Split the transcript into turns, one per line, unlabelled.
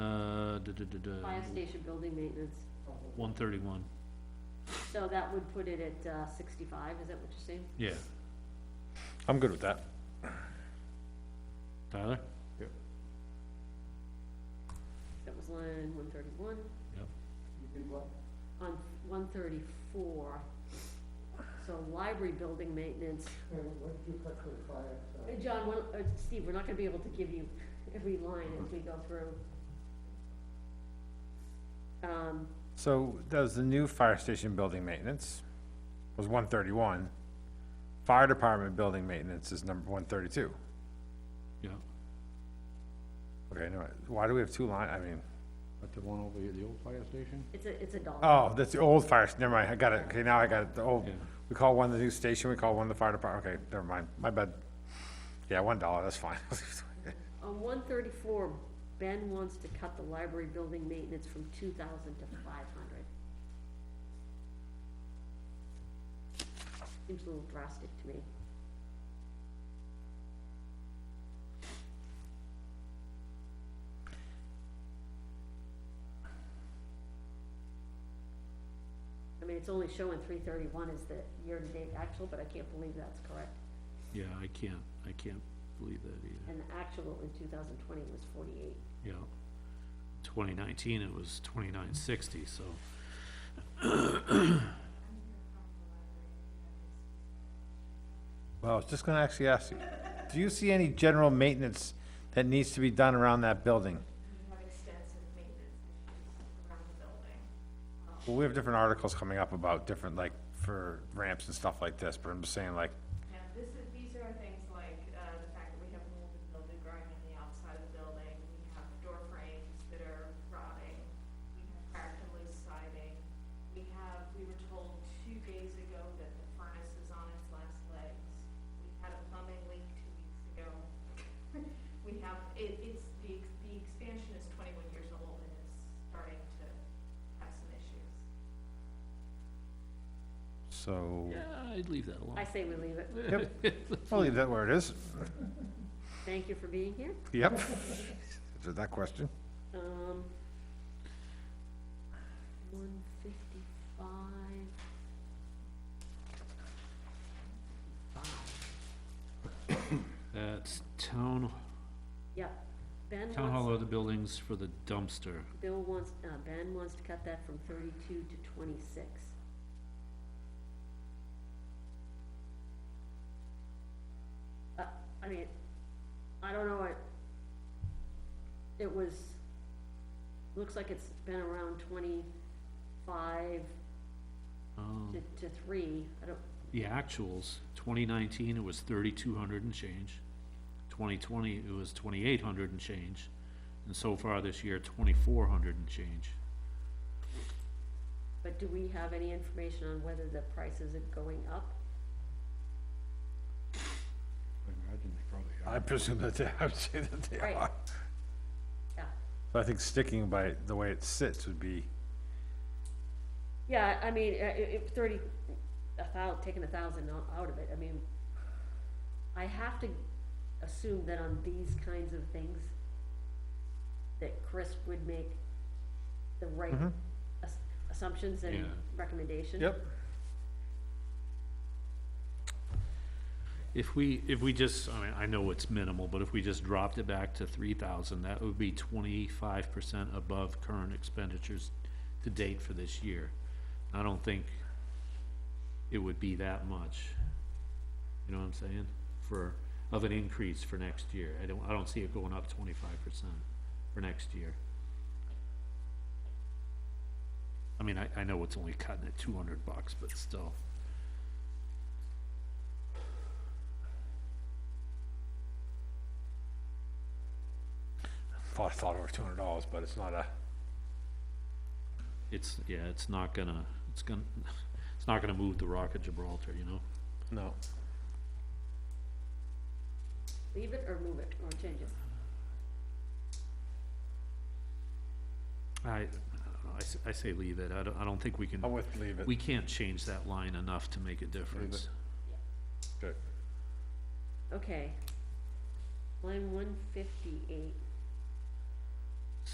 Uh,
Fire station building maintenance,
One thirty-one,
so that would put it at uh, sixty-five, is that what you're saying?
yeah.
I'm good with that.
Tyler?
That was line one thirty-one.
Yep.
On one thirty-four, so library building maintenance,
what did you cut for the fire?
Hey, John, one, uh, Steve, we're not gonna be able to give you every line as we go through. Um,
So that was the new fire station building maintenance, was one thirty-one. Fire department building maintenance is number one thirty-two.
Yeah.
Okay, no, why do we have two line, I mean,
But the one over here, the old fire station?
it's a, it's a dollar.
oh, that's the old fire, s- never mind, I got it, okay, now I got it, the old,
Yeah.
we call one the new station, we call one the fire department, okay, never mind, my bad. Yeah, one dollar, that's fine.
On one thirty-four, Ben wants to cut the library building maintenance from two thousand to five hundred. Seems a little drastic to me. I mean, it's only showing three thirty-one is the year-to-date actual, but I can't believe that's correct.
Yeah, I can't, I can't believe that either,
And the actual in two thousand twenty was forty-eight.
yeah. Twenty nineteen, it was twenty-nine sixty, so,
Well, I was just gonna actually ask you, do you see any general maintenance that needs to be done around that building?
We have extensive maintenance issues around the building.
Well, we have different articles coming up about different, like, for ramps and stuff like this, but I'm just saying, like,
And this is, these are things like, uh, the fact that we have molded building growing on the outside of the building, we have door frames that are rotting, we have cracked and loose siding, we have, we were told two days ago that the furnace is on its last legs, we had a plumbing leak two weeks ago. We have, it, it's, the, ex- the expansion is twenty-one years old and it's starting to have some issues.
so,
yeah, I'd leave that alone.
I say we leave it.
yep, we'll leave that where it is,
Thank you for being here.
yep. Answered that question.
Um, one fifty-five.
That's town,
Yep. Ben
town hall
wants,
other buildings for the dumpster,
Bill wants, uh, Ben wants to cut that from thirty-two to twenty-six. Uh, I mean, I don't know, it, it was, looks like it's been around twenty-five
um,
to, to three. I don't,
the actuals, twenty nineteen, it was thirty-two hundred and change. Twenty twenty, it was twenty-eight hundred and change, and so far this year, twenty-four hundred and change.
But do we have any information on whether the prices are going up?
I imagine they probably are.
I presume that they, I would say that they
Right.
are.
Yeah.
So I think sticking by the way it sits would be,
Yeah, I mean, uh, i- if thirty, a thou, taking a thousand o- out of it, I mean, I have to assume that on these kinds of things, that Chris would make the right ass- assumptions and
Yeah.
recommendation.
yep,
If we, if we just, I mean, I know it's minimal, but if we just dropped it back to three thousand, that would be twenty-five percent above current expenditures to date for this year. I don't think it would be that much, you know what I'm saying, for, of an increase for next year. I don't, I don't see it going up twenty-five percent for next year. I mean, I, I know it's only cutting it two hundred bucks, but still.
thought, thought over two hundred dollars, but it's not a,
it's, yeah, it's not gonna, it's gonna, it's not gonna move the Rock of Gibraltar, you know?
no.
Leave it or move it or change it.
I, I don't know, I s- I, say leave it, I don't, I don't think we can,
I'm with leave it.
we can't change that line enough to make a difference.
Good.
Okay. Line one fifty-eight.